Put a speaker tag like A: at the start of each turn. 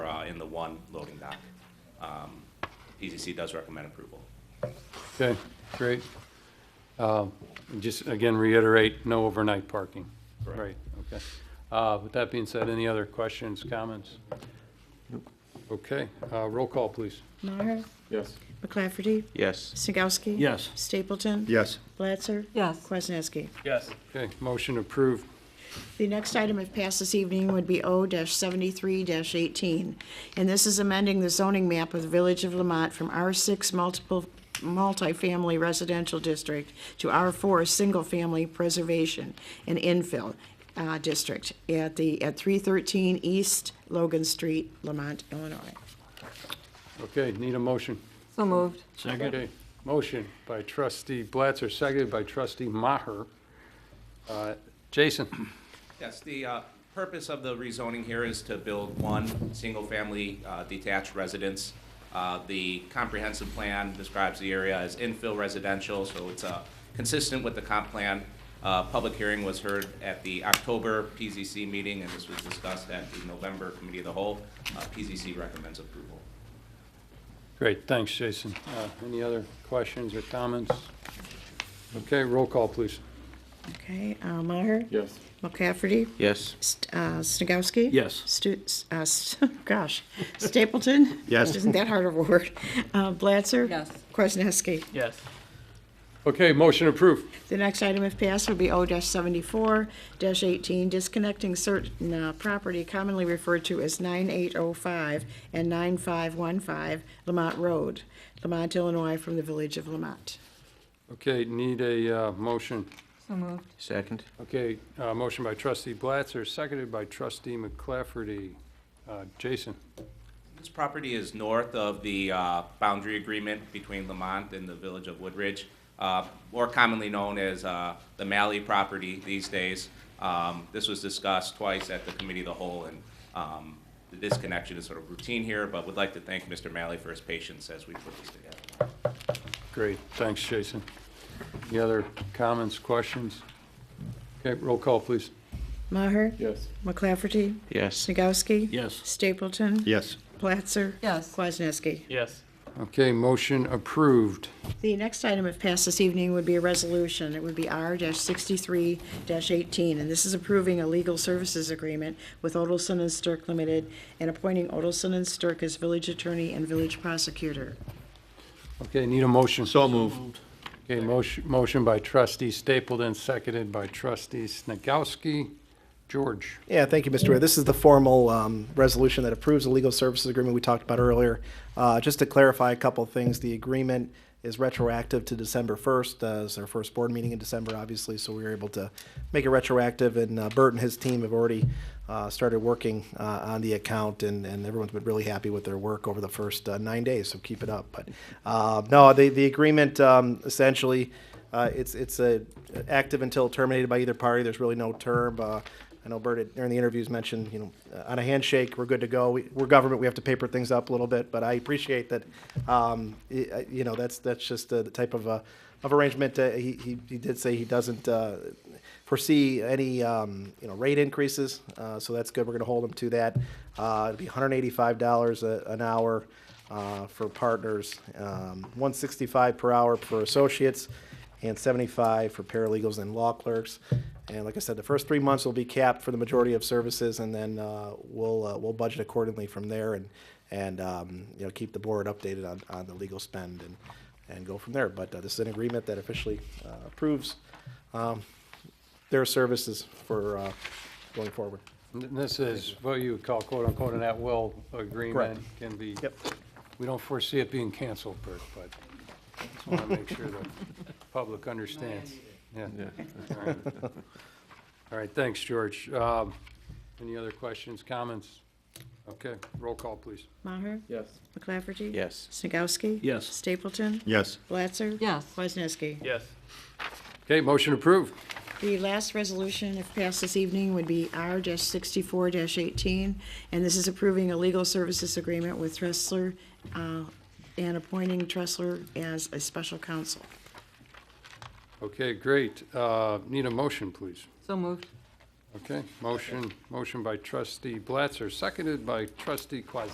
A: uh, in the one loading dock. Um, PCC does recommend approval.
B: Okay, great. Um, Just again reiterate, no overnight parking.
A: Correct.
B: Right, okay. Uh, With that being said, any other questions, comments? Okay, uh, roll call, please.
C: Maher,
D: Yes.
C: McClafferty,
E: Yes.
C: Snagowski.
B: Yes.
C: Stapleton.
E: Yes.
C: Blatzer.
F: Yes.
C: Kwasniewski.
B: Okay, motion approved.
C: The next item, if passed this evening, would be O-73-18, and this is amending the zoning map of the Village of Lamont from R6 multiple, multifamily residential district to R4 single-family preservation and infill uh, district at the, at 313 East Logan Street, Lamont, Illinois.
B: Okay, need a motion.
F: So moved.
B: Second. Motion by trustee Blatzer, seconded by trustee Maher. Uh, Jason?
A: Yes, the uh, purpose of the rezoning here is to build one single-family uh, detached residence. Uh, The comprehensive plan describes the area as infill residential, so it's uh, consistent with the comp plan. Uh, Public hearing was heard at the October PZC meeting, and this was discussed at the November Committee of the Whole. Uh, PZC recommends approval.
B: Great, thanks, Jason. Uh, Any other questions or comments? Okay, roll call, please.
C: Okay, uh, Maher?
D: Yes.
C: McCafferty?
E: Yes.
C: St- uh, Snagowski?
E: Yes.
C: Stu, s- uh, s- gosh, Stapleton?
E: Yes.
C: Isn't that hard of a word? Uh, Blatzer?
F: Yes.
C: Kwasniewski.
G: Yes.
B: Okay, motion approved.
C: The next item, if passed, would be O-74-18, disconnecting certain uh, property commonly referred to as 9805 and 9515 Lamont Road, Lamont, Illinois, from the Village of Lamont.
B: Okay, need a uh, motion.
F: So moved.
E: Second?
B: Okay, uh, motion by trustee Blatzer, seconded by trustee McClafferty. Uh, Jason?
A: This property is north of the uh, boundary agreement between Lamont and the village of Woodridge, uh, more commonly known as uh, the Malley property these days. Um, This was discussed twice at the committee of the whole, and um, the disconnection is sort of routine here, but would like to thank Mr. Malley for his patience as we put this together.
B: Great, thanks, Jason. Any other comments, questions? Okay, roll call, please.
C: Maher?
D: Yes.
C: McClafferty?
E: Yes.
C: Snagowski?
G: Yes.
C: Stapleton?
E: Yes.
C: Blatzer?
F: Yes.
C: Kwasniewski.
G: Yes.
B: Okay, motion approved.
C: The next item, if passed this evening, would be a resolution. It would be R sixty-three eighteen, and this is approving a legal services agreement with Odelson and Stirk Limited and appointing Odelson and Stirk as village attorney and village prosecutor.
B: Okay, need a motion.
E: So moved.
B: Okay, motion, motion by trustee Stapleton, seconded by trustee Snagowski. George?
H: Yeah, thank you, Mr. Ware. This is the formal um, resolution that approves the legal services agreement we talked about earlier. Uh, Just to clarify a couple of things, the agreement is retroactive to December 1st. uh, It's our first board meeting in December, obviously, so we were able to make it retroactive, and uh, Bert and his team have already uh, started working uh, on the account, and and everyone's been really happy with their work over the first uh, nine days, so keep it up. But uh, no, the the agreement um, essentially, uh, it's it's a active until terminated by either party. There's really no term. uh, I know Bert had- during the interviews mentioned, you know, uh, on a handshake, we're good to go. We- We're government, we have to paper things up a little bit, but I appreciate that, um, y- uh, you know, that's, that's just uh, the type of, uh, of arrangement. uh, He, he, he did say he doesn't uh, foresee any, um, you know, rate increases, uh, so that's good. We're gonna hold him to that. Uh, It'd be $185 a- an hour uh, for partners, um, 165 per hour for associates, and 75 for paralegals and law clerks. And like I said, the first three months will be capped for the majority of services, and then uh, we'll, uh, we'll budget accordingly from there and, and, um, you know, keep the board updated on, on the legal spend and, and go from there. But uh, this is an agreement that officially uh, approves um, their services for uh, going forward.
B: And This is what you would call quote-unquote an at-will agreement. Can be,
H: Yep.
B: we don't foresee it being canceled, Bert, but just want to make sure the public understands. Yeah. All right. All right, thanks, George. Um, Any other questions, comments? Okay, roll call, please.
C: Maher?
D: Yes.
C: McClafferty?
E: Yes.
C: Snagowski?
G: Yes.
C: Stapleton?
E: Yes.
C: Blatzer?
F: Yes.
C: Kwasniewski.
G: Yes.
B: Okay, motion approved.
C: The last resolution, if passed this evening, would be R sixty-four eighteen, and this is approving a legal services agreement with Tressler, uh, and appointing Tressler as a special counsel.
B: Okay, great. Uh, Need a motion, please.
F: So moved.
B: Okay, motion, motion by trustee Blatzer, seconded by trustee Quazell.